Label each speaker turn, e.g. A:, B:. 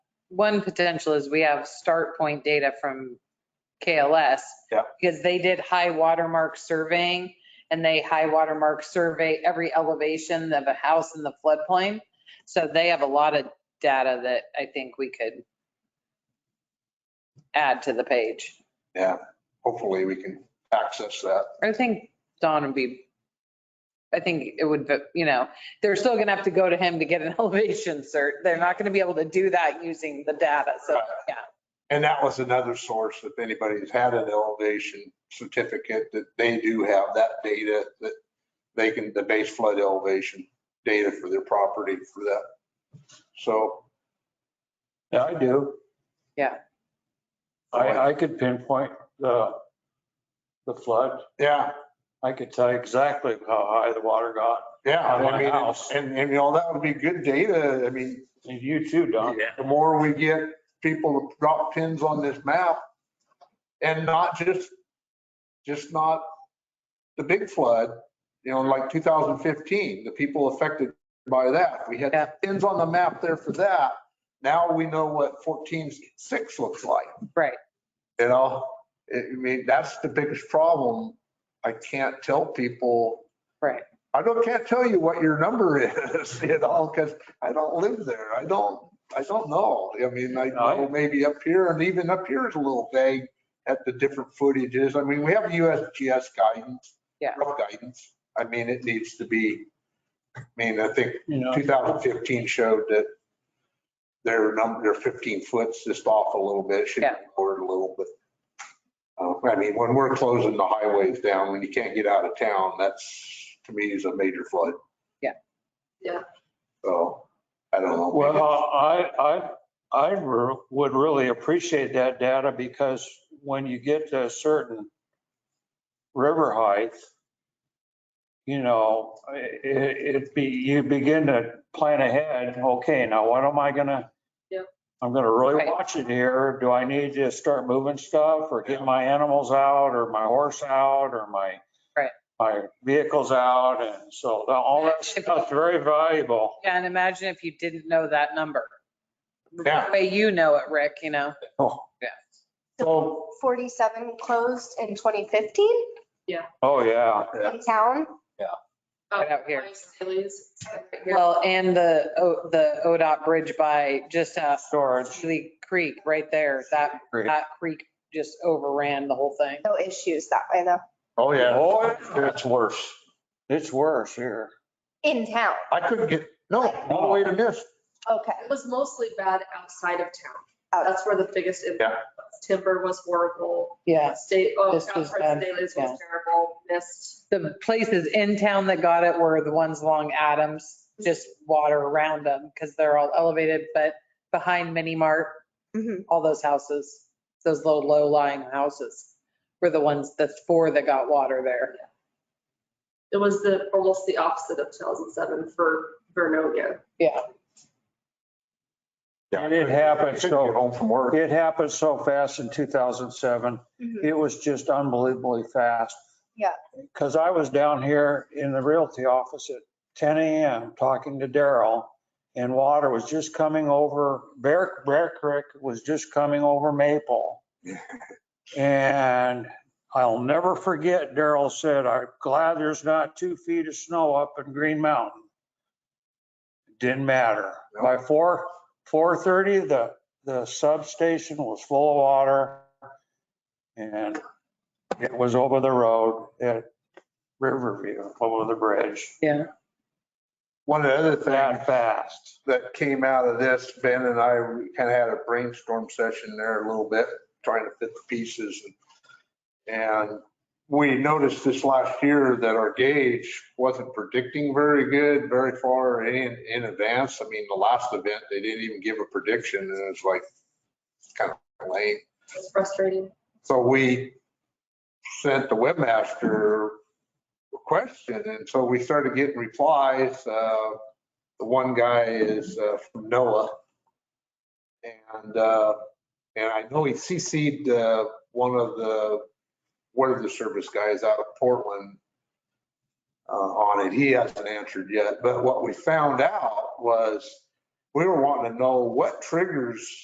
A: one potential is we have start point data from KLS.
B: Yeah.
A: Because they did high watermark surveying and they high watermark survey every elevation of a house in the floodplain. So they have a lot of data that I think we could add to the page.
B: Yeah, hopefully we can access that.
A: I think Don would be, I think it would, be- you know, they're still gonna have to go to him to get an elevation cert. They're not gonna be able to do that using the data, so, yeah.
B: And that was another source, if anybody's had an elevation certificate, that they do have that data that they can, the base flood elevation data for their property for that. So.
C: Yeah, I do.
A: Yeah.
C: I, I could pinpoint the, the flood.
B: Yeah,
C: I could tell you exactly how high the water got.
B: yeah.
C: On my
B: I mean,
C: house.
B: And, and you know, that would be good data. I mean,
C: And You too, Don.
B: the more we get people to drop pins on this map and not just, just not the big flood, you know, like 2015, the people affected by that. We
A: Yeah.
B: had pins on the map there for that. Now we know what 14.6 looks like.
A: Right.
B: You know, It- I mean, that's the biggest problem. I can't tell people.
A: Right.
B: I don't, can't tell you what your number is, you know, because I don't live there. I don't, I don't know. I mean, I know
C: Aye.
B: maybe up here and even up here is a little vague at the different footages. I mean, we have USGS guidance.
A: Yeah.
B: Rough guidance. I mean, it needs to be, I mean, I think
C: You know,
B: 2015 showed that their number, their 15 foot's just off a little bit, should be
A: Yeah.
B: lowered a little bit. Uh, I mean, when we're closing the highways down, when you can't get out of town, that's, to me, is a major flood.
A: Yeah.
D: Yeah.
B: So, I don't know.
C: well, I, I, I re- would really appreciate that data because when you get to a certain river height, you know, it, it be, you begin to plan ahead. Okay, now what am I gonna?
D: Yep.
C: I'm gonna really
A: Right.
C: watch it here. Do I need to start moving stuff or get my animals out or my horse out or my?
A: Right.
C: My vehicles out and so the- all that stuff's very valuable.
A: Yeah, and imagine if you didn't know that number. The
B: Yeah.
A: way you know it, Rick, you know?
C: Oh,
B: So,
E: 47 closed in 2015
C: oh, yeah.
B: Yeah.
E: in town.
A: Right out here.
D: Oh, Sally's.
A: Well, and the, O- the ODOT bridge by just, uh,
C: Storage.
A: Sealy Creek right there, that,
C: Creek.
A: that creek just overran the whole thing.
E: No issues that way though,
B: oh yeah,
C: Oh, it's worse. It's worse here.
E: in town.
B: I couldn't get, no, all the
C: Oh,
B: way to this.
E: Okay.
D: It was mostly bad outside of town.
A: Oh.
E: Out.
D: That's where the biggest impact was. Timber was horrible.
A: Yeah.
D: State, oh,
A: This
D: South
A: was
D: parts of
A: bad,
D: Sally's
A: yeah.
D: was terrible, missed.
A: The places in town that got it were the ones along Adams, just water around them because they're all elevated, but behind Mini Mart,
E: Mhm.
A: all those houses, those little low lying houses were the ones, the four that got water there.
D: It was the, almost the opposite of 2007 for Vernonia.
A: Yeah.
C: And it happened,
B: Couldn't get
C: so,
B: Home from work.
C: it happened so fast in 2007.
E: Mhm.
C: It was just unbelievably fast.
E: Yeah.
C: Because I was down here in the realty office at 10 AM talking to Daryl and water was just coming over, Bear, Bear Creek was just coming over Maple. And I'll never forget Daryl said, I'm glad there's not two feet of snow up in Green Mountain. Didn't matter. By four, 4:30, the, the substation was full of water. And it was over the road at Riverview, over the bridge,
A: Yeah.
B: One of the other things
C: that fast.
B: that came out of this, Ben and I kind of had a brainstorm session there a little bit, trying to fit the pieces. And we noticed this last year that our gauge wasn't predicting very good, very far in, in advance. I mean, the last event, they didn't even give a prediction and it was like, kind of lame.
D: It's frustrating.
B: So we sent the webmaster a question, and so we started getting replies. Uh, The one guy is uh, from NOAA. And, uh, and I know he CC'd uh, one of the weather service guys out of Portland uh, on it. He hasn't answered yet, but what we found out was we were wanting to know what triggers